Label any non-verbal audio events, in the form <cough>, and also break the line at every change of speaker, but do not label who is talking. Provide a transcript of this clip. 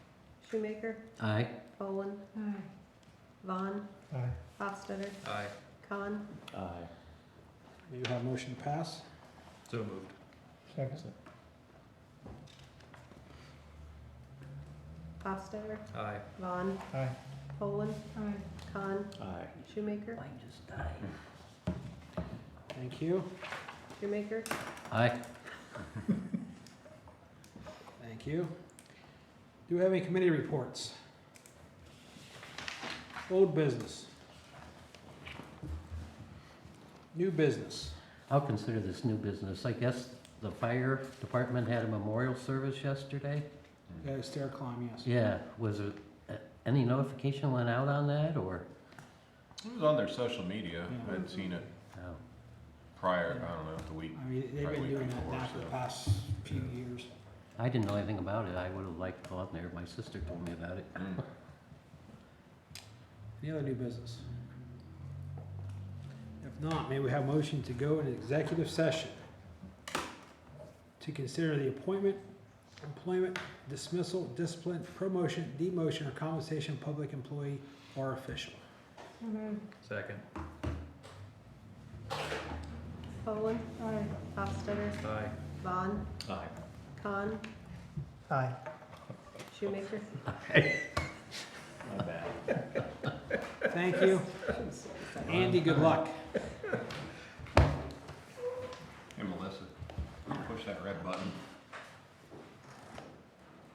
Shoemaker,
Aye.
Poland,
Aye.
Vaughn,
Aye.
Hofstadter,
Aye.
Khan,
Aye.
You have motion pass.
So moved.
Second.
Hofstadter,
Aye.
Vaughn,
Aye.
Poland,
Aye.
Khan,
Aye.
Shoemaker,
just died.
Thank you.
Shoemaker,
Aye.
Thank you. Do we have any committee reports? Old business. New business.
I'll consider this new business. I guess the fire department had a memorial service yesterday?
Uh, Stair climb, yes.
Yeah, was it, uh, any notification went out on that, or?
It was on their social media. I
Yeah.
had seen it
no?
prior, I don't know, the week.
I mean, they've
Probably
been doing that
before,
now for the
so.
past few years.
I didn't know anything about it. I would have liked to go out there. My sister told me about it.
Mm.
Hmm.
Any other new business? If not, may we have motion to go into executive session to consider the appointment, employment, dismissal, discipline, promotion, demotion, or compensation of public employee or official.
So moved.
Second.
Poland,
Aye.
Hofstadter,
Aye.
Vaughn,
Aye.
Khan,
Aye.
Shoemaker.
<laughs>
My bad.
Thank you. Andy, good luck.
Hey Melissa, push that red button.